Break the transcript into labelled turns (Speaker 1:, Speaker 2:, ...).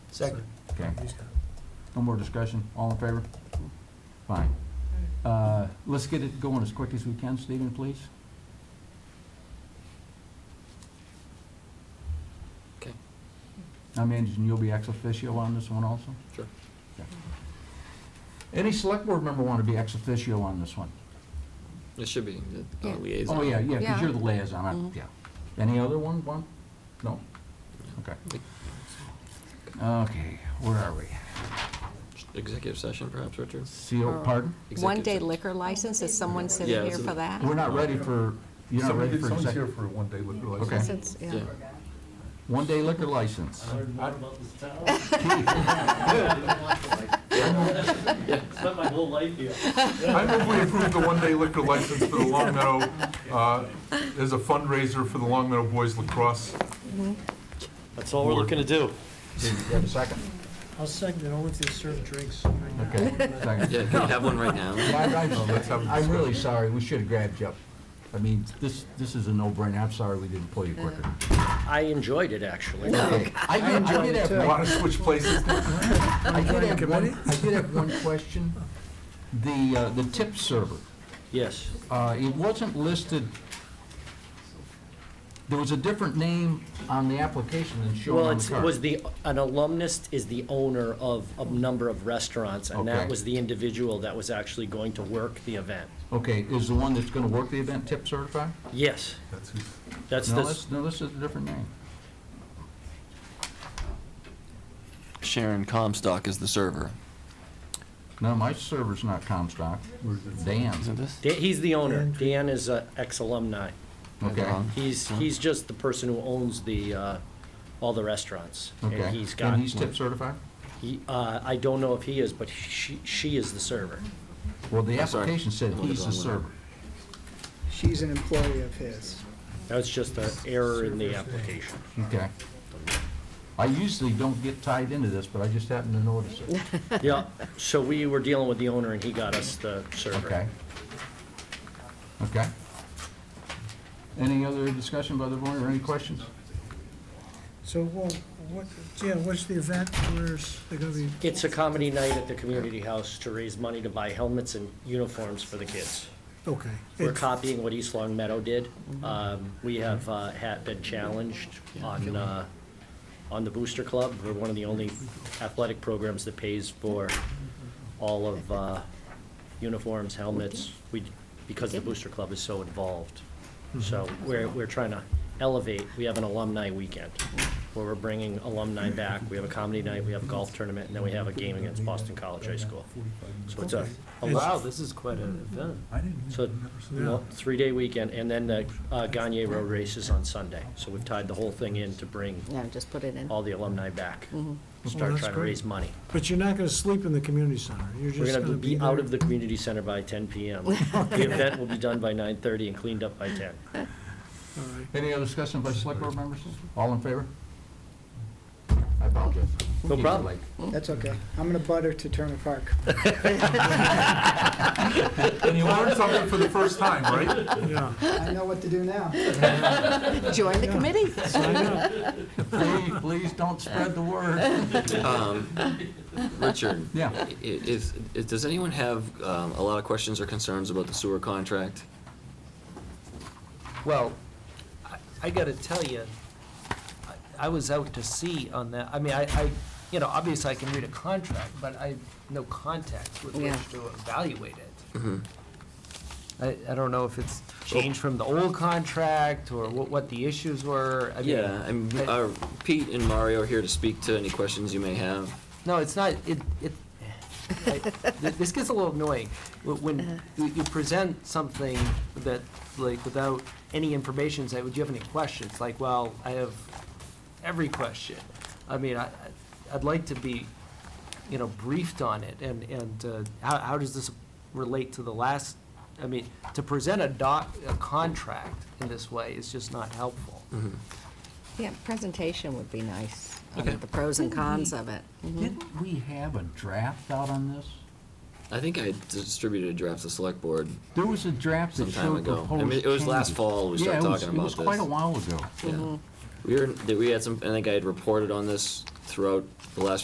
Speaker 1: Second.
Speaker 2: Okay, no more discussion, all in favor? Fine. Uh, Let's get it going as quick as we can, Stephen, please.
Speaker 1: Okay.
Speaker 2: I imagine you'll be ex officio on this one also?
Speaker 1: Sure.
Speaker 2: Okay. Any select board member want to be ex officio on this one?
Speaker 1: It should be the uh,
Speaker 3: Yeah.
Speaker 1: liaison.
Speaker 2: Oh, yeah, yeah,
Speaker 3: Yeah.
Speaker 2: because you're the liaison, I-
Speaker 1: Mm-hmm.
Speaker 3: Mhm.
Speaker 2: yeah. Any other one, one? No? Okay. Okay, where are we?
Speaker 1: Executive session perhaps, Richard?
Speaker 2: CO, pardon?
Speaker 3: One-day
Speaker 1: Executive
Speaker 3: liquor license, is someone
Speaker 1: Yeah,
Speaker 3: sitting here
Speaker 1: it's a-
Speaker 3: for that?
Speaker 2: We're not ready for, you're not
Speaker 4: Somebody,
Speaker 2: ready for
Speaker 4: someone's here
Speaker 2: executive.
Speaker 4: for a one-day liquor
Speaker 2: Okay.
Speaker 4: license.
Speaker 3: Since- yeah.
Speaker 1: se- Yeah.
Speaker 2: One-day liquor license.
Speaker 5: learned more about this town. Spent my whole life here.
Speaker 4: I move we approve the one-day liquor license for the Long Meadow, uh, as a fundraiser for the Long Meadow Boys Lacrosse.
Speaker 5: That's all we're looking to do.
Speaker 2: Did you have a second?
Speaker 6: I'll second it, only if they serve drinks.
Speaker 2: Okay, second.
Speaker 1: Yeah, can you have one right now?
Speaker 2: I-
Speaker 4: No, let's have
Speaker 2: I'm
Speaker 4: a
Speaker 2: I'm really sorry, we should have grabbed you up. I mean, this, this is a no-brainer, I'm sorry we didn't pull you quicker.
Speaker 7: I enjoyed it, actually.
Speaker 2: Okay. I did, I did have, one-
Speaker 4: Want to switch places?
Speaker 2: I did have one, I did have one question. The, uh, the tip server,
Speaker 7: Yes,
Speaker 2: uh, it wasn't listed, there was a different name on the application than shown
Speaker 7: well,
Speaker 2: on the
Speaker 7: it's- it was
Speaker 2: card.
Speaker 7: the, an alumnus is the owner of a number of restaurants, and
Speaker 2: Okay.
Speaker 7: that was the individual that was actually going to work the event.
Speaker 2: Okay, is the one that's gonna work the event tip certified?
Speaker 7: Yes,
Speaker 4: That's who's-
Speaker 7: that's
Speaker 2: No,
Speaker 7: the,
Speaker 2: this, no, this is a different name.
Speaker 1: Sharon Comstock is the server.
Speaker 2: No, my server's not Comstock, Dan's,
Speaker 1: Isn't this?
Speaker 7: Da- he's the owner. Dan is an ex-alumni.
Speaker 2: okay?
Speaker 7: He's,
Speaker 2: Uh-huh.
Speaker 7: he's just the person who owns the, uh, all the restaurants.
Speaker 2: Okay.
Speaker 7: And he's got,
Speaker 2: And he's tip certified?
Speaker 7: he, uh, I don't know if he is, but she, she is the server.
Speaker 2: Well, the
Speaker 1: I'm sorry.
Speaker 2: application said he's the server.
Speaker 6: She's an employee of his.
Speaker 7: That was just an error in the application.
Speaker 2: Okay. I usually don't get tied into this, but I just happened to notice it.
Speaker 7: Yeah, so we were dealing with the owner, and he got us the server.
Speaker 2: Okay. Okay. Any other discussion by the board or any questions?
Speaker 6: So, well, what, Jim, what's the event, where's, they're gonna be,
Speaker 7: It's a comedy night at the community house to raise money to buy helmets and uniforms for the kids.
Speaker 6: okay.
Speaker 7: We're
Speaker 6: It-
Speaker 7: copying what East Long Meadow did. Um, We have uh, had been challenged on, uh, on the Booster Club. We're one of the only athletic programs that pays for all of uh, uniforms, helmets, we, because the Booster Club is so involved. So we're, we're trying to elevate, we have an alumni weekend where we're bringing alumni back. We have a comedy night, we have a golf tournament, and then we have a game against Boston College High School. So it's a, a lot-
Speaker 5: Wow, this is quite an event.
Speaker 7: so, well, three-day weekend, and then the uh, Gagne Road race is on Sunday. So we've tied the whole thing in to bring
Speaker 3: Yeah, just put it in. Mm-hmm.
Speaker 7: all the alumni back,
Speaker 6: Well,
Speaker 7: start
Speaker 6: oh, that's
Speaker 7: trying to
Speaker 6: great.
Speaker 7: raise money.
Speaker 6: But you're not gonna sleep in the community center, you're
Speaker 7: We're
Speaker 6: just
Speaker 7: gonna
Speaker 6: gonna be
Speaker 7: be
Speaker 6: there.
Speaker 7: out of the community center by ten PM. The event will be done by nine-thirty and cleaned up by ten.
Speaker 6: All right.
Speaker 2: Any other discussion by select board members? All in favor? I apologize.
Speaker 7: No problem.
Speaker 2: Like,
Speaker 8: That's okay. I'm gonna butter to Turner Park.
Speaker 4: And you learn something for the first time, right?
Speaker 6: Yeah,
Speaker 8: I know what to do now.
Speaker 3: Join the committee.
Speaker 2: Please, please don't spread the word.
Speaker 1: Um, Richard?
Speaker 2: Yeah.
Speaker 1: i- i- Is, is, does anyone have um, a lot of questions or concerns about the sewer contract?
Speaker 5: Well, I- I gotta tell you, I was out to sea on that, I mean, I, I, you know, obviously I can read a contract, but I have no context with
Speaker 3: Yeah.
Speaker 5: which to evaluate it. I, I don't know if it's changed from the old contract, or what, what the issues were, I mean.
Speaker 1: Yeah, and
Speaker 5: I-
Speaker 1: uh, Pete and Mario are here to speak to any questions you may have.
Speaker 5: No, it's not, it, it, I- th- this gets a little annoying. Wh- When you you present something that, like, without any information, say, would you have any questions? Like, well, I have every question. I mean, I, I- I'd like to be, you know, briefed on it, and, and uh, how, how does this relate to the last? I mean, to present a doc, a contract in this way is just not helpful.
Speaker 1: Mm-hmm.
Speaker 3: Yeah, presentation would be nice, on
Speaker 1: Okay.
Speaker 3: the pros and cons of it.
Speaker 2: Didn't we have a draft out on this?
Speaker 1: I think I distributed a draft to select board.
Speaker 2: There was a draft that
Speaker 1: Some time
Speaker 2: showed
Speaker 1: ago. I
Speaker 2: proposed
Speaker 1: mean, it was last
Speaker 2: changes.
Speaker 1: fall we started
Speaker 2: Yeah, it was-
Speaker 1: talking about
Speaker 2: It was quite a
Speaker 1: this.
Speaker 2: while ago.
Speaker 1: Yeah. We were, that we had some, I think I had reported on this throughout the last few